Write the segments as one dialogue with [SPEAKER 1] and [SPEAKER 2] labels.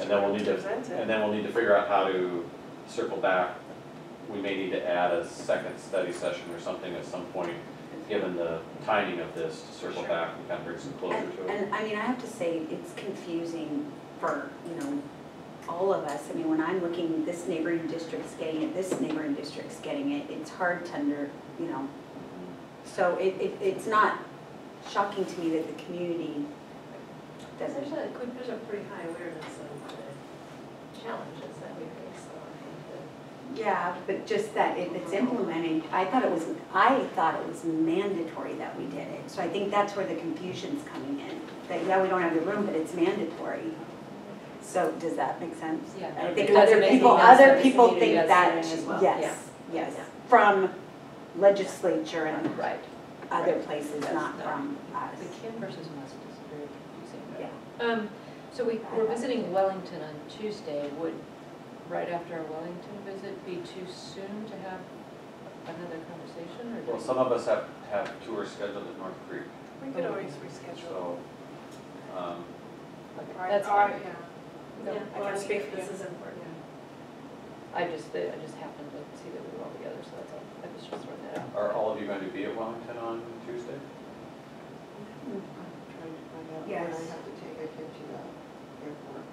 [SPEAKER 1] And then we'll need to,
[SPEAKER 2] Present it.
[SPEAKER 1] and then we'll need to figure out how to circle back. We may need to add a second study session or something at some point, given the timing of this, to circle
[SPEAKER 2] Sure.
[SPEAKER 1] back and kind of bring some closure
[SPEAKER 3] And,
[SPEAKER 1] to it.
[SPEAKER 3] and I mean, I have to say, it's confusing for, you know, all of us. I mean, when I'm looking, this neighboring district's getting it, this neighboring district's getting it, it's hard to under, you know. So it, it, it's not shocking to me that the community
[SPEAKER 4] There's
[SPEAKER 3] doesn't.
[SPEAKER 4] a, there's a pretty high awareness of the challenges that we face, so I think
[SPEAKER 3] Yeah, but just that if it's implemented, I thought it was, I thought it was mandatory that we did it. So I think that's where the confusion's coming in, that, yeah, we don't have the room, but it's mandatory. So does that make sense?
[SPEAKER 5] Yeah.
[SPEAKER 3] I think
[SPEAKER 5] It doesn't
[SPEAKER 3] other
[SPEAKER 5] make
[SPEAKER 3] people,
[SPEAKER 5] any sense that
[SPEAKER 3] other
[SPEAKER 5] the
[SPEAKER 3] people
[SPEAKER 5] community
[SPEAKER 3] think
[SPEAKER 5] has
[SPEAKER 3] that,
[SPEAKER 5] it in as well.
[SPEAKER 3] yes, yes,
[SPEAKER 4] Yeah.
[SPEAKER 3] from legislature and
[SPEAKER 5] Right.
[SPEAKER 3] other places,
[SPEAKER 5] That's
[SPEAKER 3] not
[SPEAKER 5] not-
[SPEAKER 3] from us.
[SPEAKER 5] The Kim versus West is very confusing.
[SPEAKER 3] Yeah.
[SPEAKER 5] Um, so we, we're visiting Wellington on Tuesday, would, right after our Wellington visit, be too soon to have another conversation, or? do
[SPEAKER 1] Well,
[SPEAKER 5] we-
[SPEAKER 1] some of us have, have tours scheduled at North Creek,
[SPEAKER 2] We could always
[SPEAKER 1] so,
[SPEAKER 2] reschedule.
[SPEAKER 1] um,
[SPEAKER 5] Okay,
[SPEAKER 2] Or-
[SPEAKER 5] That's
[SPEAKER 2] or,
[SPEAKER 5] fine.
[SPEAKER 2] yeah.
[SPEAKER 5] No,
[SPEAKER 4] Yeah,
[SPEAKER 2] I
[SPEAKER 4] well,
[SPEAKER 2] can speak for
[SPEAKER 4] This
[SPEAKER 2] you.
[SPEAKER 4] is important.
[SPEAKER 5] I just, I just happened to see that we were all together, so that's all, I was just throwing that out.
[SPEAKER 1] are all of you going to be at Wellington on Tuesday?
[SPEAKER 6] Trying to find out when I
[SPEAKER 3] Yes.
[SPEAKER 6] have to take a kid to the airport.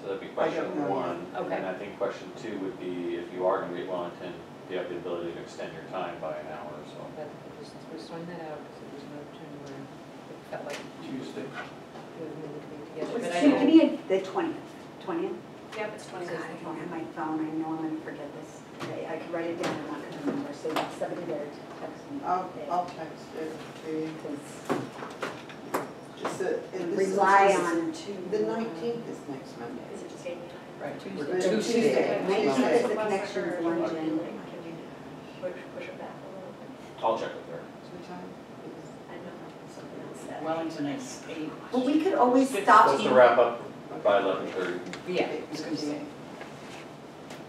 [SPEAKER 1] So that'd be
[SPEAKER 6] I don't
[SPEAKER 1] question
[SPEAKER 6] know yet.
[SPEAKER 1] one. And then
[SPEAKER 5] Okay.
[SPEAKER 1] I think question two would be, if you are going to be at Wellington, do you have the ability to extend your time by an hour or so?
[SPEAKER 5] But I just was throwing that out, because it was an opportunity where it felt like
[SPEAKER 1] Tuesday.
[SPEAKER 5] we would need to be together.
[SPEAKER 3] Was
[SPEAKER 5] but
[SPEAKER 3] it
[SPEAKER 5] I
[SPEAKER 3] should
[SPEAKER 5] don't-
[SPEAKER 3] give me a- the twentieth, twentieth?
[SPEAKER 2] Yep, it's
[SPEAKER 3] God,
[SPEAKER 2] 20
[SPEAKER 3] I don't have my phone, I know I'm gonna forget this today, I could write it down, I'm not gonna remember, so somebody better text me.
[SPEAKER 6] I'll,
[SPEAKER 3] today,
[SPEAKER 6] I'll text it to you.
[SPEAKER 3] 'cause
[SPEAKER 6] Just that- and this is
[SPEAKER 3] Rely
[SPEAKER 6] just-
[SPEAKER 3] on
[SPEAKER 6] The nineteenth is next Monday.
[SPEAKER 4] Is it just eight?
[SPEAKER 6] Right.
[SPEAKER 5] Tuesday.
[SPEAKER 6] Tuesday.
[SPEAKER 3] Tuesday.
[SPEAKER 6] Tuesday.
[SPEAKER 3] Tuesday. the connection with London.
[SPEAKER 4] Can you push, push it back a little bit?
[SPEAKER 1] I'll check with her.
[SPEAKER 6] What time is-
[SPEAKER 4] I know something else that.
[SPEAKER 7] Wellington is eight.
[SPEAKER 3] Well, we could always
[SPEAKER 7] Six.
[SPEAKER 3] stop
[SPEAKER 1] Supposed to
[SPEAKER 3] you,
[SPEAKER 1] wrap up by eleven thirty.
[SPEAKER 7] Yeah,
[SPEAKER 6] Eight
[SPEAKER 7] it's gonna be eight.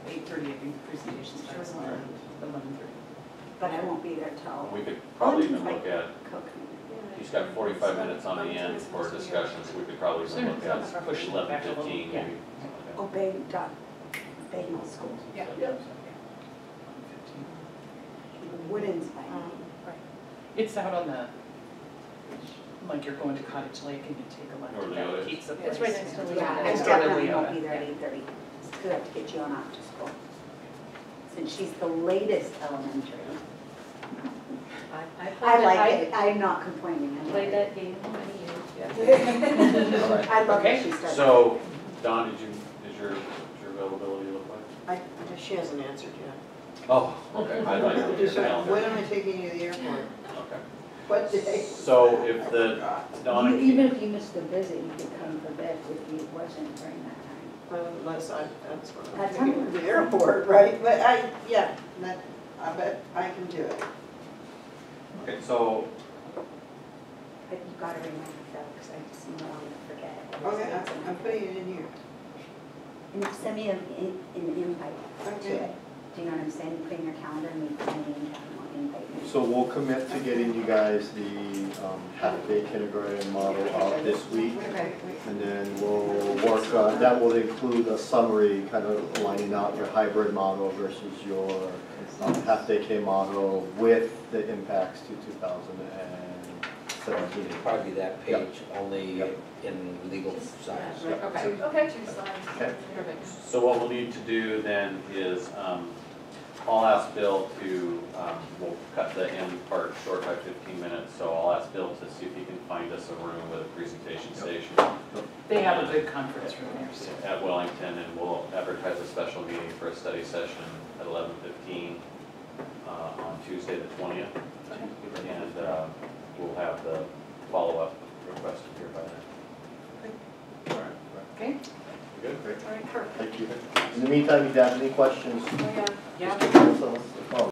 [SPEAKER 7] Eight thirty, I think, presentation
[SPEAKER 6] Sure.
[SPEAKER 7] starts eleven thirty.
[SPEAKER 3] but I won't be there till
[SPEAKER 1] We could probably even look at,
[SPEAKER 3] Cook.
[SPEAKER 1] he's got forty-five minutes on the end for discussion, so we could probably even look at, push eleven fifteen maybe. something
[SPEAKER 3] Obey, Oh, dot, obey my school,
[SPEAKER 7] Yeah.
[SPEAKER 1] like that.
[SPEAKER 4] Yep.
[SPEAKER 3] Woodin's by
[SPEAKER 2] Um,
[SPEAKER 3] me.
[SPEAKER 7] It's out on the, like you're going to Cottage Lake and you take a left
[SPEAKER 1] Or
[SPEAKER 7] at that
[SPEAKER 1] Leota's.
[SPEAKER 7] pizza place.
[SPEAKER 5] It's right next to
[SPEAKER 7] and-
[SPEAKER 5] Leota's.
[SPEAKER 3] Yeah, I
[SPEAKER 7] It's
[SPEAKER 5] Yeah.
[SPEAKER 3] definitely
[SPEAKER 7] totally
[SPEAKER 3] won't
[SPEAKER 7] out.
[SPEAKER 3] be there at eight thirty, because I have to get you on after school. Since she's the latest elementary.
[SPEAKER 5] I, I
[SPEAKER 3] I
[SPEAKER 5] played
[SPEAKER 3] like
[SPEAKER 5] that,
[SPEAKER 3] it, I'm not complaining.
[SPEAKER 5] I
[SPEAKER 3] I
[SPEAKER 5] played
[SPEAKER 3] like it.
[SPEAKER 5] that game many years, yeah.
[SPEAKER 1] All right.
[SPEAKER 3] I love that
[SPEAKER 7] Okay,
[SPEAKER 3] she started.
[SPEAKER 1] So, Don, did you, did your, did your availability look like?
[SPEAKER 6] I, she hasn't answered yet.
[SPEAKER 1] Oh, okay, I thought you were your
[SPEAKER 6] Just like, When
[SPEAKER 1] calendar.
[SPEAKER 6] am I taking you to the airport?
[SPEAKER 1] Okay.
[SPEAKER 6] What day?
[SPEAKER 1] So if
[SPEAKER 6] I
[SPEAKER 1] the-
[SPEAKER 6] forgot.
[SPEAKER 1] Donna,
[SPEAKER 3] You- Even if you missed the visit, you could come for this if you wasn't during that time.
[SPEAKER 6] Unless I, that's what I'm
[SPEAKER 3] That's
[SPEAKER 6] thinking,
[SPEAKER 3] fine.
[SPEAKER 6] the airport, right? But I, yeah, that, I bet I can do it.
[SPEAKER 1] okay, so
[SPEAKER 3] But you gotta remember though, because I just know I'm gonna forget. it.
[SPEAKER 6] Okay, Oh, I'm, I'm putting it in here.
[SPEAKER 3] And send me an, in- an invite to
[SPEAKER 6] Okay.
[SPEAKER 3] it. Do you know what I'm saying? Put in your calendar and we can invite me.
[SPEAKER 8] So we'll commit to getting you guys the um, half-day kindergarten model out this week.
[SPEAKER 6] Okay, wait.
[SPEAKER 8] And then we'll work, uh, that will include a summary, kind of lining out your hybrid model versus your um, half-day K model with the impacts to 2017.
[SPEAKER 9] Probably that
[SPEAKER 8] Yeah.
[SPEAKER 9] page, only
[SPEAKER 8] Yeah.
[SPEAKER 9] in legal size.
[SPEAKER 5] Okay,
[SPEAKER 4] Okay, two slides.
[SPEAKER 8] Okay.
[SPEAKER 5] perfect.
[SPEAKER 1] So what we'll need to do then is, um, I'll ask Bill to, um, we'll cut the end part short by fifteen minutes, so I'll ask Bill to see if he can find us a room with a presentation station
[SPEAKER 7] They have a good conference room there, so.
[SPEAKER 1] at Wellington, and we'll advertise a special meeting for a study session at eleven fifteen, uh, on Tuesday the twentieth. And, uh, we'll have the follow-up requested here by then. All right,
[SPEAKER 7] Okay,
[SPEAKER 1] we good?
[SPEAKER 8] Thank you. In the meantime, if you have any questions,
[SPEAKER 2] Yeah.
[SPEAKER 7] yeah.
[SPEAKER 8] just give us a- a call.